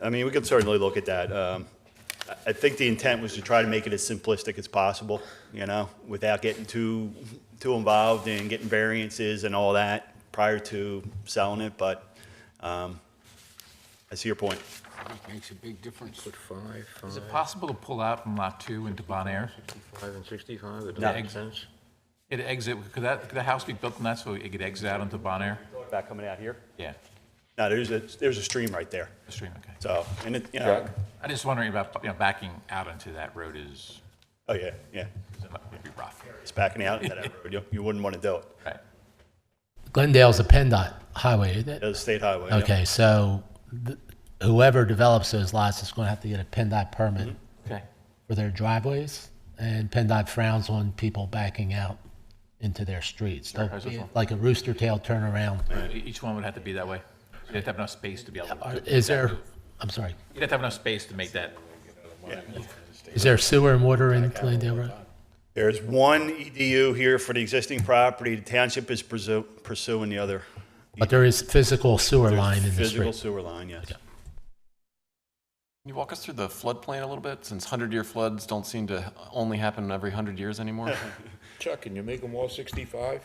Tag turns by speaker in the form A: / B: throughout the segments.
A: I mean, we could certainly look at that. Um, I- I think the intent was to try to make it as simplistic as possible, you know, without getting too, too involved in getting variances and all that prior to selling it, but um, I see your point.
B: It Makes a big difference.
C: Put five,
D: Is it
C: five,
D: possible to pull out from Lot 2 into Bon Air?
C: five and sixty-five, it
A: No.
C: doesn't make sense.
D: It exit, could that, could the house be built on that so it could exit out into Bon Air?
A: Back coming out here?
D: Yeah,
A: No, there's a, there's a stream right there,
D: the stream, okay.
A: so, and it, you know,
D: I just wondering about, you know, backing out into that road is,
A: oh, yeah, yeah,
D: is- would be rough,
A: it's backing out into that road. You- You wouldn't want to do it.
D: right?
E: Glendale's a PennDOT highway, isn't it?
A: It's a state highway. yeah.
E: Okay, so th- whoever develops those lots is going to have to get a PennDOT permit
A: Mm-hmm.
D: Okay.
E: for their driveways, and PennDOT frowns on people backing out into their streets. They'll
D: how's
E: be
D: this one?
E: Like a rooster tail turnaround.
D: Uh, Each one would have to be that way? You'd have to have enough space to be able
E: Are-
D: to.
E: Uh, Is there, I'm sorry,
D: You'd have to have enough space to make that,
E: is there sewer and water in Glendale Road?
A: There's one EDU here for the existing property. The township is pursu- pursuing the other. E
E: But there is physical sewer line in the
A: Physical
E: street.
A: sewer line, yes.
F: Can you walk us through the floodplain a little bit, since 100-year floods don't seem to only happen every 100 years anymore?
C: Chuck, can you make them all sixty-five?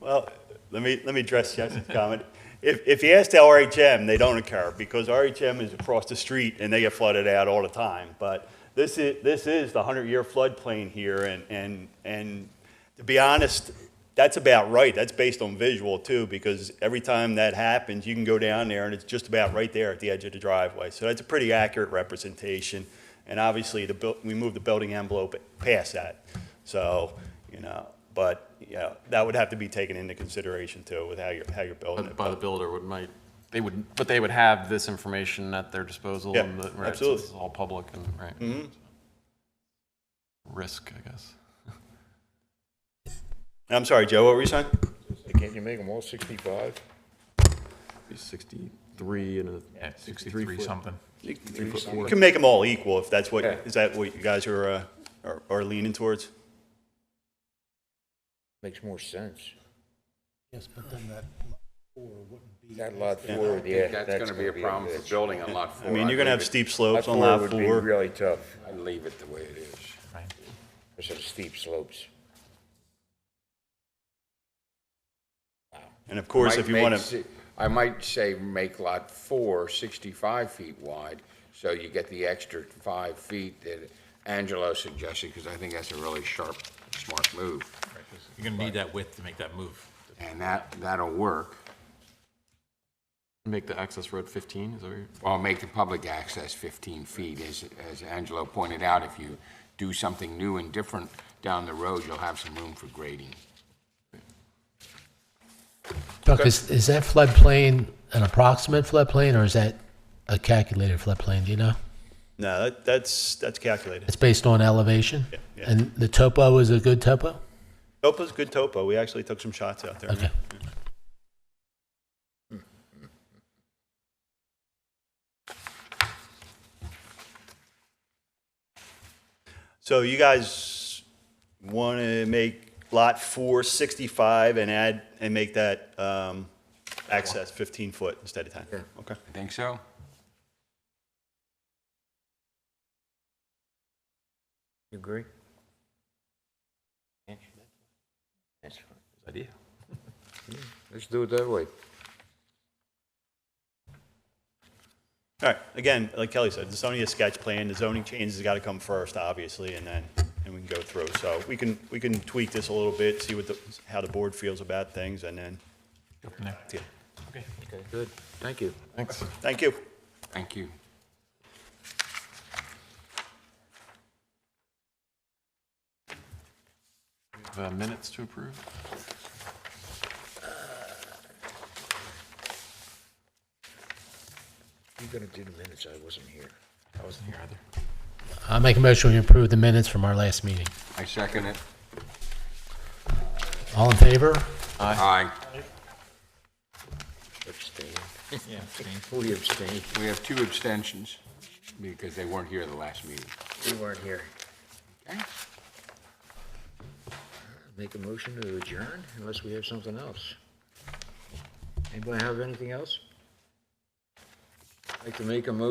A: Well, let me, let me address Jesse's comment. If, if you ask the RHM, they don't occur because RHM is across the street and they get flooded out all the time. But this is, this is the hundred-year floodplain here and, and, and to be honest, that's about right. That's based on visual too, because every time that happens, you can go down there and it's just about right there at the edge of the driveway. So that's a pretty accurate representation. And obviously, the, buil- we moved the building envelope past that. So, you know, but, you know, that would have to be taken into consideration too with how you're, how you're building it.
F: By the builder would might, they would, but they would have this information at their disposal?
A: Yeah,
F: and the- right, so
A: absolutely.
F: It's all public and, right? Risk, I guess.
A: I'm sorry, Joe, what were you saying?
C: Can't you make them all sixty-five?
F: 63 and
D: yeah,
F: a
D: 63 something.
A: You can make them all equal if that's what, is that what you guys are, uh, are- are leaning towards?
C: Makes more sense.
E: Yes, but then that four wouldn't be.
C: That lot four, yeah, that's
G: That's gonna be a problem for
C: bitch.
G: building on lot
A: I
G: four.
A: mean, you're gonna have steep
G: believe
C: Lot
A: slopes on
C: four
A: lot
C: would be
A: four.
C: really tough,
G: it- I leave it the way it is.
D: Right.
C: because of the steep slopes.
A: And of course, if
G: Might
A: you wanna.
G: make si- I might say make lot four 65 feet wide, so you get the extra five feet that Angelo suggested, because I think that's a really sharp, smart move.
D: right, 'cause You're going to need that width to make that move.
G: And that, that'll work.
F: Make the access road 15, is that what you're?
G: Well, make the public access 15 feet, as, as Angelo pointed out, if you do something new and different down the road, you'll have some room for grading.
E: Chuck, is, is that floodplain an approximate floodplain, or is that a calculated floodplain, do you know?
A: No, that, that's, that's calculated.
E: It's based on elevation?
A: yeah.
E: And the topo is a good topo?
A: Topo's good topo. We actually took some shots out there.
E: Okay.
A: So you guys want to make lot four 65 and add, and make that um, access 15 foot instead of 10? Okay.
G: I think so.
C: You agree?
D: Idea.
C: Let's do it that way.
A: All right, again, like Kelly said, it's only a sketch plan, the zoning changes got to come first, obviously, and then, and we can go through. So we can, we can tweak this a little bit, see what the, how the board feels about things, and then,
D: Go from there.
A: yeah.
D: Okay.
C: Okay, good, thank you.
F: Thanks.
A: thank you.
G: Thank you.
F: Uh, Minutes to approve?
C: You're gonna do the minutes, I wasn't here.
D: I wasn't here either.
E: I make a motion to approve the minutes from our last meeting.
G: I second it.
E: All in favor?
G: Aye.
C: Abstain.
D: Yeah, abstain.
C: Who abstained?
G: We have two abstentions because they weren't here the last meeting.
C: We weren't here.
G: Okay?
C: Make a motion to adjourn unless we have something else. Anybody have anything else? Like to make a motion